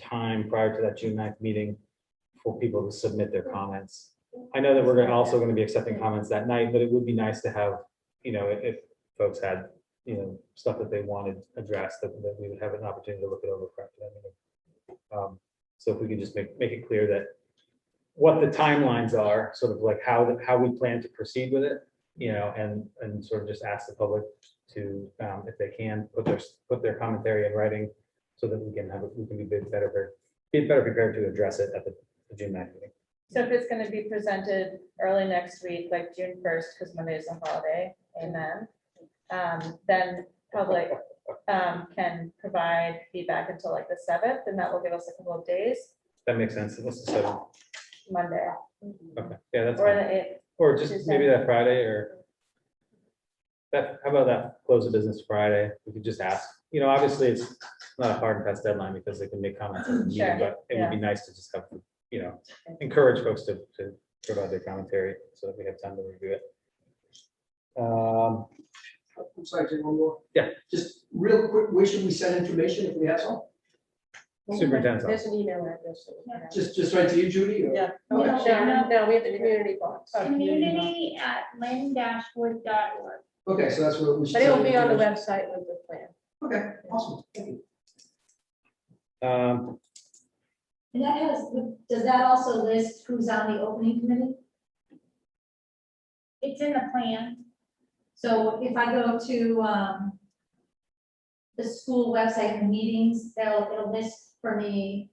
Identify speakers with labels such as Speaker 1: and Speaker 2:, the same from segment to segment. Speaker 1: time prior to that June 9th meeting for people to submit their comments. I know that we're gonna- also gonna be accepting comments that night, but it would be nice to have, you know, if if folks had, you know, stuff that they wanted addressed, that, that we would have an opportunity to look it over prior to that meeting. Um, So if we could just make, make it clear that what the timelines are, sort of like how, the- how we plan to proceed with it, you know, and, and sort of just ask the public to, um, if they can, put their, put their commentary in writing so that we can have, we can be bit better, pre- be better prepared to address it at the the June ninth meeting.
Speaker 2: So if it's gonna be presented early next week, like June first, because Monday is a holiday, amen. Um, then public, um, can provide feedback until like the seventh, and that will give us a couple of days,
Speaker 1: That makes sense. What's the seven?
Speaker 2: Monday.
Speaker 1: Okay, yeah, that's,
Speaker 2: Or
Speaker 1: fine.
Speaker 2: the eighth,
Speaker 1: or just maybe that Friday or that, how about that, close the business Friday? We could just ask, you know, obviously it's not a hard and fast deadline because they can make comments at the meeting,
Speaker 2: Sure,
Speaker 1: but it would be nice to just have, you know, encourage folks to, to provide their commentary so that we have time to review it. Um,
Speaker 3: I'm sorry, Jim, one more.
Speaker 1: Yeah.
Speaker 3: Just real quick, where should we send information if we have some?
Speaker 1: Superintendent's office.
Speaker 4: There's an email address. that we can have.
Speaker 3: Just, just right to you, Judy? or-
Speaker 4: Yeah.
Speaker 5: Okay.
Speaker 4: No, no, we have the community box.
Speaker 5: Community@lynn-wood.org.
Speaker 3: Okay, so that's where we should.
Speaker 4: But it'll
Speaker 3: send
Speaker 4: be on the
Speaker 3: information.
Speaker 4: website with the plan.
Speaker 3: Okay, awesome. Thank you.
Speaker 1: Um,
Speaker 5: And that has, does that also list who's on the opening committee? It's in the plan. So if I go to, um, the school website and meetings, they'll, it'll list for me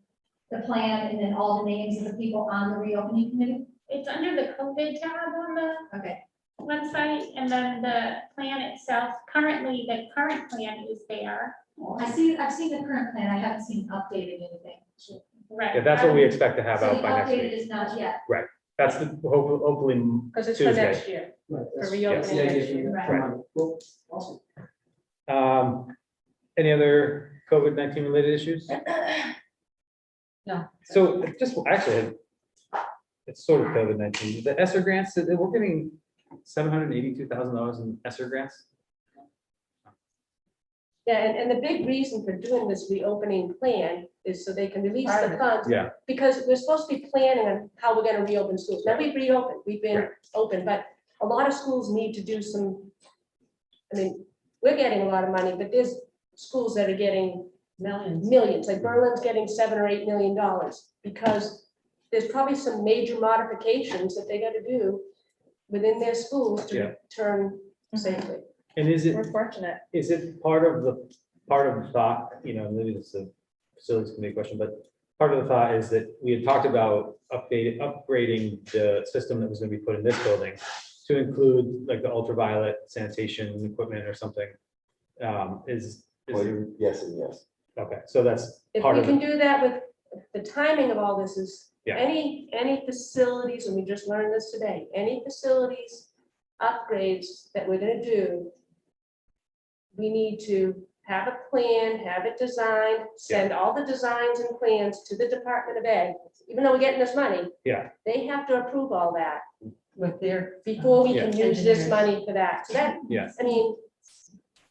Speaker 5: the plan and then all the names of the people on the reopening committee?
Speaker 6: It's under the COVID tab on the
Speaker 5: Okay.
Speaker 6: website, and then the plan itself, currently, the current plan is there.
Speaker 5: I see, I've seen the current plan, I haven't seen updated anything.
Speaker 6: Right.
Speaker 1: yeah, that's what we expect to have
Speaker 5: So
Speaker 1: out
Speaker 5: the
Speaker 1: by next
Speaker 5: updated
Speaker 1: week.
Speaker 5: is not yet.
Speaker 1: That's the, hope- hopefully,
Speaker 4: Because it's for
Speaker 1: Tuesday.
Speaker 4: next year,
Speaker 3: Right,
Speaker 4: for
Speaker 3: that's- that's
Speaker 4: reopening
Speaker 3: the idea
Speaker 4: next
Speaker 3: for you.
Speaker 4: year.
Speaker 5: Right.
Speaker 3: Come on, cool, Awesome.
Speaker 1: um, any other COVID nineteen related issues?
Speaker 4: No.
Speaker 1: So just actually, it's sort of COVID nineteen, the ESSER grants, that- that we're getting seven hundred and eighty-two thousand dollars in ESSER grants.
Speaker 4: Yeah, and, and the big reason for doing this reopening plan is so they can release the
Speaker 2: Right.
Speaker 4: funds.
Speaker 1: Yeah.
Speaker 4: Because we're supposed to be planning on how we're gonna reopen schools. Now, we've reopened, we've been
Speaker 1: Right.
Speaker 4: open, but a lot of schools need to do some, I mean, we're getting a lot of money, but there's schools that are getting
Speaker 7: Millions.
Speaker 4: millions, like Berlin's getting seven or eight million dollars, because there's probably some major modifications that they gotta do within their schools
Speaker 1: Yeah.
Speaker 4: to turn safely.
Speaker 1: And is it,
Speaker 2: we're fortunate.
Speaker 1: is it part of the, part of the thought, you know, maybe it's a facilities committee question, but part of the thought is that we had talked about updating, upgrading the system that was gonna be put in this building to include like the ultraviolet sanitation equipment or something. Um, is,
Speaker 8: Well,
Speaker 1: is,
Speaker 8: you- yes and yes.
Speaker 1: okay, so that's
Speaker 4: If
Speaker 1: part
Speaker 4: we
Speaker 1: of
Speaker 4: can
Speaker 1: it.
Speaker 4: do that with, the timing of all this is,
Speaker 1: Yeah.
Speaker 4: any, any facilities, and we just learned this today, any facilities upgrades that we're gonna do, we need to have a plan, have it designed, send all the designs and plans to the Department of Ed, even though we're getting this money.
Speaker 1: Yeah.
Speaker 4: They have to approve all that
Speaker 7: With their.
Speaker 4: before we can
Speaker 7: Yeah.
Speaker 4: use this money for that. So that,
Speaker 1: Yeah.
Speaker 4: I mean,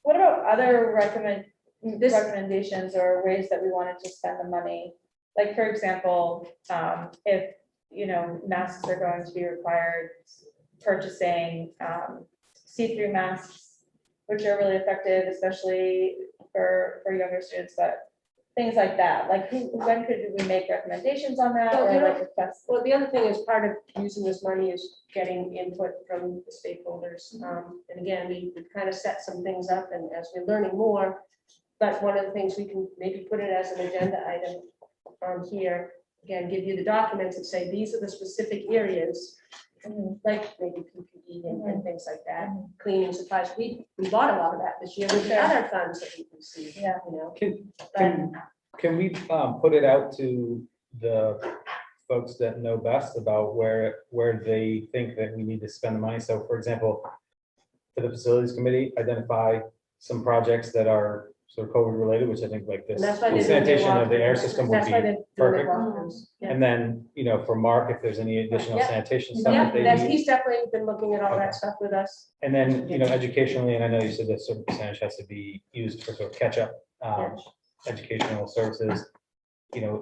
Speaker 2: What about other recommend,
Speaker 4: This-
Speaker 2: recommendations or ways that we wanted to spend the money? Like, for example, um, if, you know, masks are going to be required, purchasing, um, see-through masks, which are really effective, especially for, for younger students, but things like that, like, who, when could we make recommendations on that,
Speaker 4: Well,
Speaker 2: or
Speaker 4: you know-
Speaker 2: like, request?
Speaker 4: well, the other thing is part of using this money is getting input from the stakeholders.
Speaker 2: Mm-hmm.
Speaker 4: Um, and again, we kind of set some things up and as we're learning more, but one of the things we can maybe put it as an agenda item on here. Again, give you the documents and say, these are the specific areas,
Speaker 2: mm-hmm.
Speaker 4: like maybe PPE and- and things like that, cleaning supplies. We, we bought a lot of that this year with the
Speaker 2: Sure.
Speaker 4: other funds that we received, you
Speaker 2: Yeah.
Speaker 4: know.
Speaker 1: Can,
Speaker 4: But
Speaker 1: can, can we, um, put it out to the folks that know best about where, where they think that we need to spend the money? So for example, for the facilities committee, identify some projects that are sort of COVID related, which I think like this
Speaker 4: And that's why they.
Speaker 1: sanitation of the air system would
Speaker 4: That's why
Speaker 1: be.
Speaker 4: they're doing the
Speaker 1: perfect.
Speaker 4: walkthroughs. Yeah.
Speaker 1: And then, you know, for Mark, if there's any additional
Speaker 4: Yeah.
Speaker 1: sanitation stuff
Speaker 4: Yeah,
Speaker 1: that they
Speaker 4: that's,
Speaker 1: need.
Speaker 4: he's definitely been looking at all
Speaker 1: Okay.
Speaker 4: that stuff with us.
Speaker 1: And then, you know, educationally, and I know you said that certain Um, percentage has to be used for sort of catch up, um, educational services. You know,